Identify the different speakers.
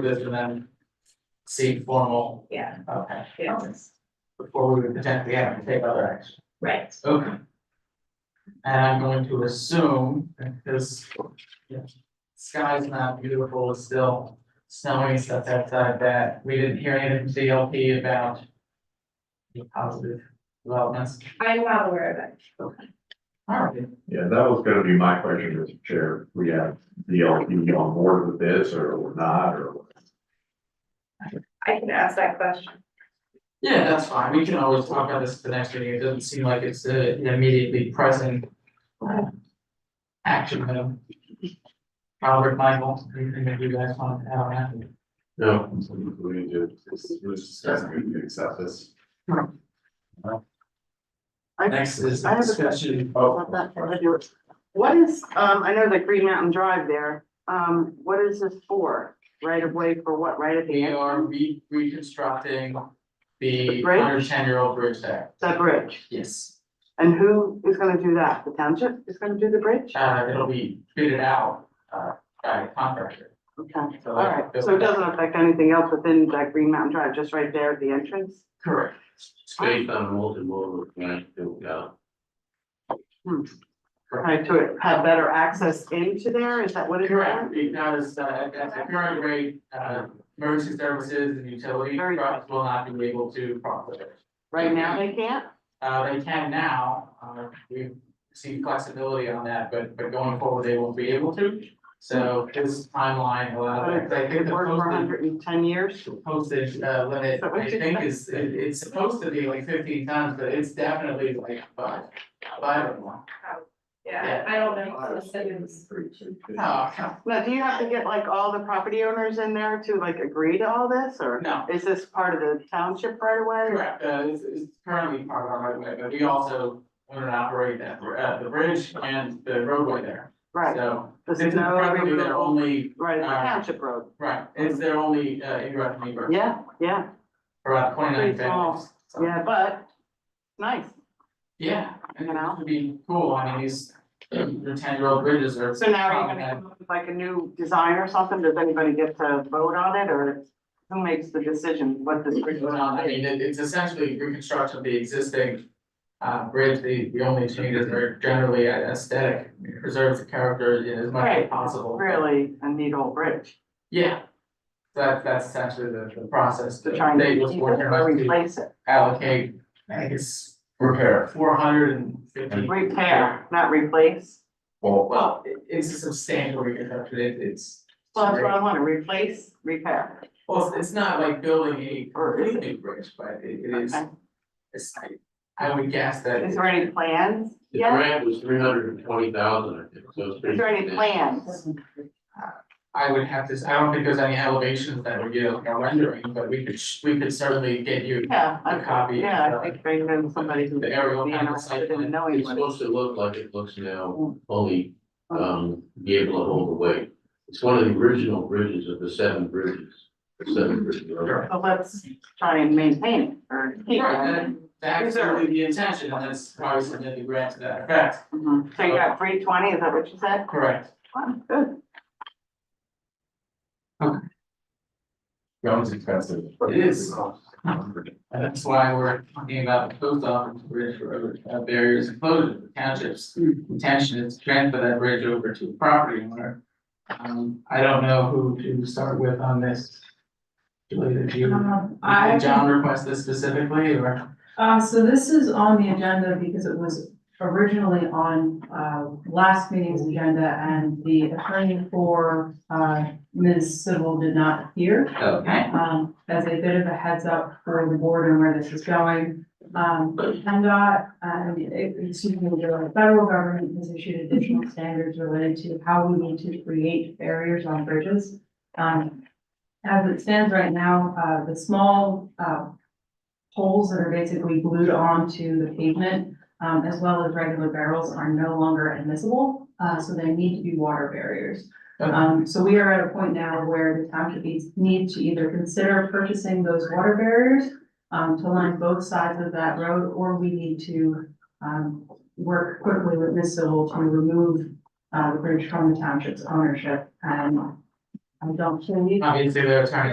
Speaker 1: this and then see formal,
Speaker 2: yeah,
Speaker 1: okay,
Speaker 2: yes,
Speaker 1: before we would potentially have to take other action.
Speaker 2: right,
Speaker 1: Okay. And I'm going to assume, because yeah, sky's not beautiful, it's still snowing, stuff outside that, we didn't hear anything from DLP about the positive developments.
Speaker 2: I'm not aware of it.
Speaker 1: All right,
Speaker 3: Yeah, that was gonna be my question, Mr. Chair. We have DLP on board with this or we're not, or
Speaker 2: I can ask that question.
Speaker 1: yeah, that's fine, we can always talk about this at the next meeting, it doesn't seem like it's uh, an immediately present uh, action item. Robert, Michael, anything that you guys want to add on that?
Speaker 3: No. We need to, we're just discussing, we can accept this.
Speaker 1: Next is
Speaker 4: I have a
Speaker 1: discussion.
Speaker 4: About that, I do it. What is, um, I know that Green Mountain Drive there, um, what is this for? Right of way for what, right at the
Speaker 1: We
Speaker 4: end?
Speaker 1: are re- reconstructing the
Speaker 4: The bridge?
Speaker 1: hundred ten year old bridge there.
Speaker 4: The bridge,
Speaker 1: Yes.
Speaker 4: and who is gonna do that? The township is gonna do the bridge?
Speaker 1: Uh, it'll be fitted out, uh, by a contractor.
Speaker 4: Okay,
Speaker 1: So
Speaker 4: all
Speaker 1: that-
Speaker 4: right, so it doesn't affect anything else within that Green Mountain Drive, just right there at the entrance?
Speaker 1: Correct.
Speaker 5: It's based on multimodal, right, to, uh,
Speaker 4: All right, to have better access into there, is that what it's?
Speaker 1: Correct, because, uh, at at the current rate, uh, emergency services and utility
Speaker 4: Very good.
Speaker 1: trucks will not be able to cross the bridge.
Speaker 4: Right now they can't?
Speaker 1: Uh, they can now, uh, we see flexibility on that, but, but going forward, they won't be able to. So this timeline allows, I think
Speaker 4: It
Speaker 1: the
Speaker 4: worked for
Speaker 1: posted
Speaker 4: hundred and ten years?
Speaker 1: postage uh limit,
Speaker 4: But we
Speaker 1: I
Speaker 4: should-
Speaker 1: think is, it it's supposed to be like fifteen tons, but it's definitely like five, five or more.
Speaker 2: Yeah, I don't know. It's-
Speaker 1: Oh, come,
Speaker 4: Now, do you have to get like all the property owners in there to like agree to all this, or
Speaker 1: no,
Speaker 4: is this part of the township right away?
Speaker 1: correct, uh it's it's currently part of our right of way, but we also own and operate that, br- uh the bridge and the roadway there.
Speaker 4: Right,
Speaker 1: So
Speaker 4: this
Speaker 1: this
Speaker 4: is
Speaker 1: is
Speaker 4: no,
Speaker 1: probably their
Speaker 4: right,
Speaker 1: only,
Speaker 4: it's a
Speaker 1: uh,
Speaker 4: township road,
Speaker 1: right, it's their only uh ingress and egress
Speaker 4: yeah, yeah,
Speaker 1: for about twenty nine
Speaker 4: Pretty small.
Speaker 1: families. So,
Speaker 4: yeah, but, nice,
Speaker 1: Yeah, and
Speaker 4: You know?
Speaker 1: it would be cool, I mean, these, the ten year old bridges are.
Speaker 4: so now are you
Speaker 1: problematic.
Speaker 4: gonna come up with like a new design or something, does anybody get to vote on it, or who makes the decision what this bridge is
Speaker 1: Well,
Speaker 4: on?
Speaker 1: I mean, it- it's essentially reconstruction of the existing uh bridge, the the only changes are generally aesthetic, preserves the character you know, as much as
Speaker 4: Right.
Speaker 1: possible.
Speaker 4: Really, a neat old bridge,
Speaker 1: Yeah. That that's essentially the the process.
Speaker 4: to try and
Speaker 1: They
Speaker 4: keep
Speaker 1: was
Speaker 4: it or
Speaker 1: working to
Speaker 4: replace it,
Speaker 1: allocate, I think it's repair four hundred and fifty.
Speaker 4: repair, not replace,
Speaker 3: Well,
Speaker 1: Well, it it's a substantial reconstruction, it it's.
Speaker 4: well, that's what I wanna, replace, repair,
Speaker 1: Well, it's- it's not like building a
Speaker 4: or is it?
Speaker 1: completely bridge, but it it is,
Speaker 4: Okay.
Speaker 1: it's I I would guess that.
Speaker 4: Is there any plans
Speaker 5: the
Speaker 4: yet?
Speaker 5: grant was three hundred and twenty thousand, I think, so it's pretty.
Speaker 4: Is there any
Speaker 5: substantial.
Speaker 4: plans?
Speaker 1: I would have to, s- I don't think there's any elevations that would give a rendering, but we could, sh- we could certainly get you
Speaker 4: Yeah,
Speaker 1: a
Speaker 4: I,
Speaker 1: copy.
Speaker 4: yeah, I think they know somebody who's.
Speaker 1: The aerial
Speaker 4: be
Speaker 1: kind of
Speaker 4: interested
Speaker 1: site plan.
Speaker 4: in knowing
Speaker 5: It's
Speaker 4: what.
Speaker 5: supposed to look like it looks now, only, um, be able to hold the weight. It's one of the original bridges of the seven bridges, the seven bridges.
Speaker 1: Sure.
Speaker 4: So let's try and maintain it or keep
Speaker 1: Right,
Speaker 4: it.
Speaker 1: then that's really the intention, and that's probably something to grant to that effect.
Speaker 4: Mhm. So you got three twenty, is that what you said?
Speaker 1: Correct.
Speaker 4: Wow, Good.
Speaker 3: that was expensive.
Speaker 1: It is. And that's why we're talking about the post office bridge road uh, barriers and closures, the township's intention is to transfer that bridge over to a property owner. Um, I don't know who to start with on this. Julie, did you?
Speaker 6: Um, I,
Speaker 1: Did John request this specifically, or?
Speaker 6: uh, so this is on the agenda because it was originally on, uh, last meeting's agenda and the attorney for, uh, Ms. Civil did not appear.
Speaker 1: Okay.
Speaker 6: Um, as a bit of a heads up for the board and where this is going. Um, PennDOT, um, it- excuse me, the federal government has issued additional standards related to how we need to create barriers on bridges. Um, as it stands right now, uh, the small, uh, poles that are basically glued onto the pavement, um, as well as regular barrels are no longer admissible, uh, so they need to be water barriers.
Speaker 1: Okay.
Speaker 6: Um, so we are at a point now where the township needs, need to either consider purchasing those water barriers um, to line both sides of that road, or we need to, um, work quickly with Ms. Civil to remove uh, the bridge from the township's ownership and I don't believe
Speaker 1: Obviously, their attorney